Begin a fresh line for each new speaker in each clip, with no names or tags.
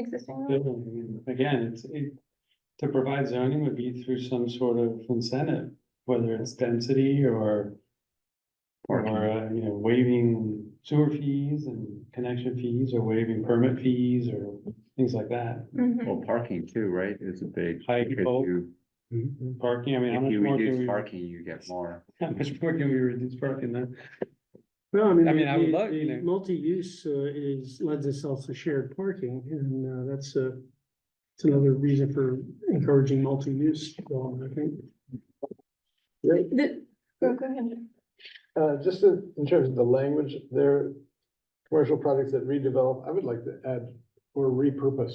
existing road?
building. And Again, it's, it, to provide zoning would be through some sort of incentive, whether it's density or. Or, uh, you know, waiving sewer fees and connection fees or waiving permit fees or things like that.
Mhm.
Well, parking too, right, is a big.
High
if
people.
you-
Mm-hmm.
Parking, I mean, how
If
much
you
more
reduce
can we,
parking, you get more.
how much more can we reduce parking then?
Well, I mean.
I mean, I would
the-
love, you
the
know.
Multi-use uh, is, lends itself to shared parking, and uh, that's a, it's another reason for encouraging multi-use development, I think.
The- Go, go ahead.
Uh, just in in terms of the language, there, commercial projects that redevelop, I would like to add or repurpose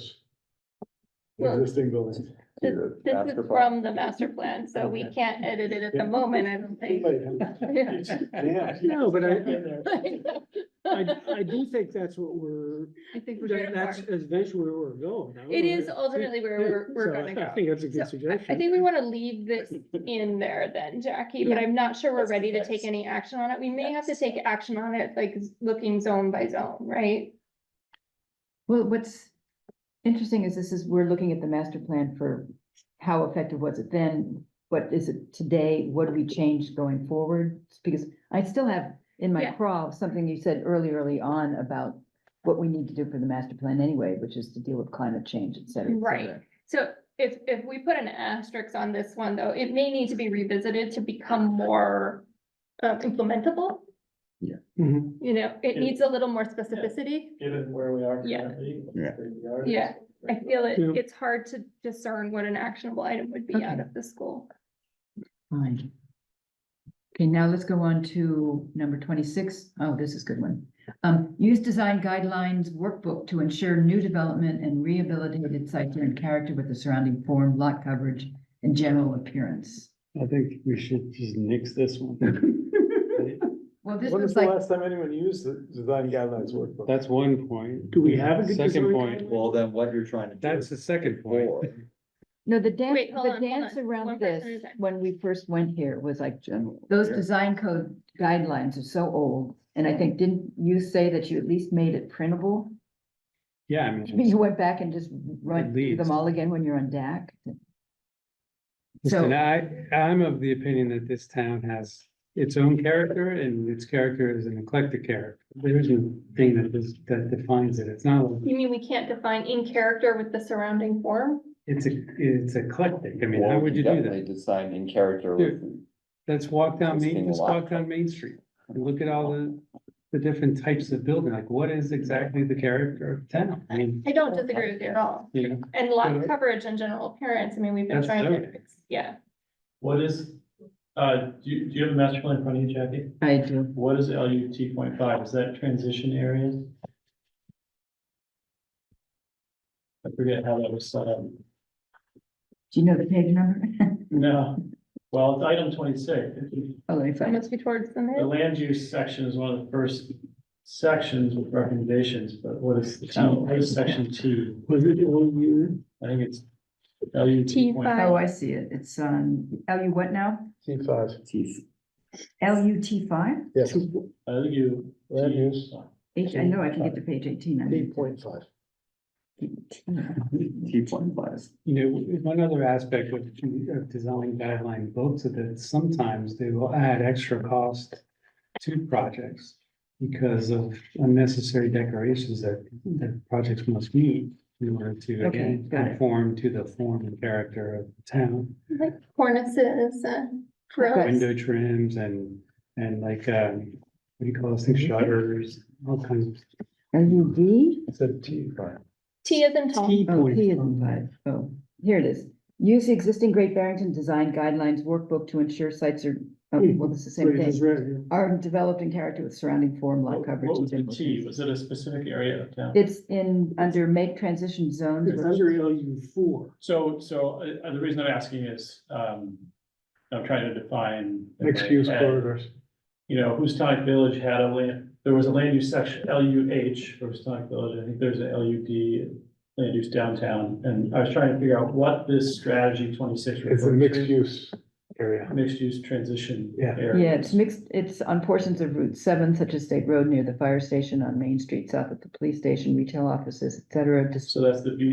Well,
existing buildings.
This
the
this
master
is
plan.
from the master plan, so we can't edit it at the
Yeah.
moment, I don't think.
Yeah.
No, but I, I, I
It
do think that's what we're,
I think we're
that-
going
that's
to.
eventually where we're going. I don't know.
is ultimately where we're, we're
So
gonna
I
go.
think that's a
So,
good suggestion.
I think we wanna leave this in there then, Jackie, but
Yeah.
I'm not sure we're
Let's do
ready to
this.
take any action on it. We may have to take action on it, like looking zone by zone, right?
Well, what's interesting is this is, we're looking at the master plan for how effective was it then? What is it today? What do we change going forward? Because I still have in my
Yeah.
craw something you said early, early on about what we need to do for the master plan anyway, which is to deal with climate change, et cetera, et
Right.
cetera.
So if, if we put an asterisk on this one, though, it may need to be revisited to become more uh, implementable.
Mhm.
Mm-hmm.
You know, it
Yeah.
needs a little more specificity.
Given where we are.
Yeah.
Yeah.
Yeah. I feel it,
Yeah.
it's hard to discern what an actionable item would be out
Okay.
of the school.
Fine. Okay, now let's go on to number 26. Oh, this is a good one. Um, use design guidelines workbook to ensure new development and rehabilitated sites are in character with the surrounding form, lot coverage, and general appearance.
I think we should just nix this one.
Well, this
When was
was
the
like,
last time anyone used the design guidelines workbook?
That's one point.
Do we have a good
Second
design
point,
guideline?
Well, then what you're trying to do.
that's the second point.
no, the dance,
Wait, hold
the
on, hold
dance
on. One
around
person at a
this,
time.
when we first went here, was like general. Those
Yeah.
design code guidelines are so old. And I think, didn't you say that you at least made it printable?
Yeah, I mean,
You went back and just run through
least.
them all again when you're on DAC?
listen,
So,
I, I'm of the opinion that this town has its own character and its character is an eclectic character. There is no thing that is, that defines it. It's not, like-
You mean we can't define in character with the surrounding form?
it's, a it's eclectic. I mean, how would you do that?
Design in character
with Let's walk down Main,
Existing
just
lot.
walk down Main Street and look at all the, the different types of building, like what is exactly the character of town? I mean,
I don't disagree with you at all.
you know,
And lot
Yeah.
coverage and general appearance, I mean, we've been
That's
trying to,
zoning.
yeah.
What is, uh, do you, do you have a master plan in front of you, Jackie?
I do,
What is LU T point five? Is that transition areas? I forget how that was set up.
do you know the page number?
No, well, it's item twenty-six.
Oh, let me
It
find it.
must be towards the
The
mid.
land use section is one of the first sections with recommendations, but what is the town, what is section T?
Was it all you?
I think it's LU T point
T5.
Oh, I see it, it's on LU what now?
T five,
LUT five?
yes,
LU.
land use,
H, I know I can get to page eighteen.
T
I mean,
point five.
T point five.
You know, one other aspect of, of design guideline books is that sometimes they will add extra cost to projects because of unnecessary decorations that, that projects must meet in order to,
Okay,
again,
got it.
conform to the form and character of the town.
Like cornices and frills.
Okay.
Window trims and, and like, um, what do you call those
Mm-hmm.
things, shutters, all kinds of.
LUV?
It's a T five.
T is in tall.
T
Oh, T is in
point.
five. Oh, here it is. Use the existing Great Barrington Design Guidelines Workbook to ensure sites are, oh,
Hmm.
well, it's the same
Wait, it's
thing.
right here.
Are developed in character with surrounding form, lot coverage.
What was the
and
T?
general-
Was it a specific area of town?
It's in, under make transition zones.
It's under LU four.
So, so, uh, uh, the reason I'm asking is, um, I'm trying to define. in my
Mixed use
head,
corridors.
You know, Houstonic Village had a land, there was a land use section, L U H for Houstonic Village, I think there's a L U D, land use downtown, and I was trying to figure out what this strategy twenty-six.
It's a
referred
mixed
to.
use area.
mixed use transition
Yeah.
area.
Yeah, it's mixed, it's on portions of Route seven, such as State Road near the fire station, on Main Street, south of the police station, retail offices, et cetera, dis-
So that's the B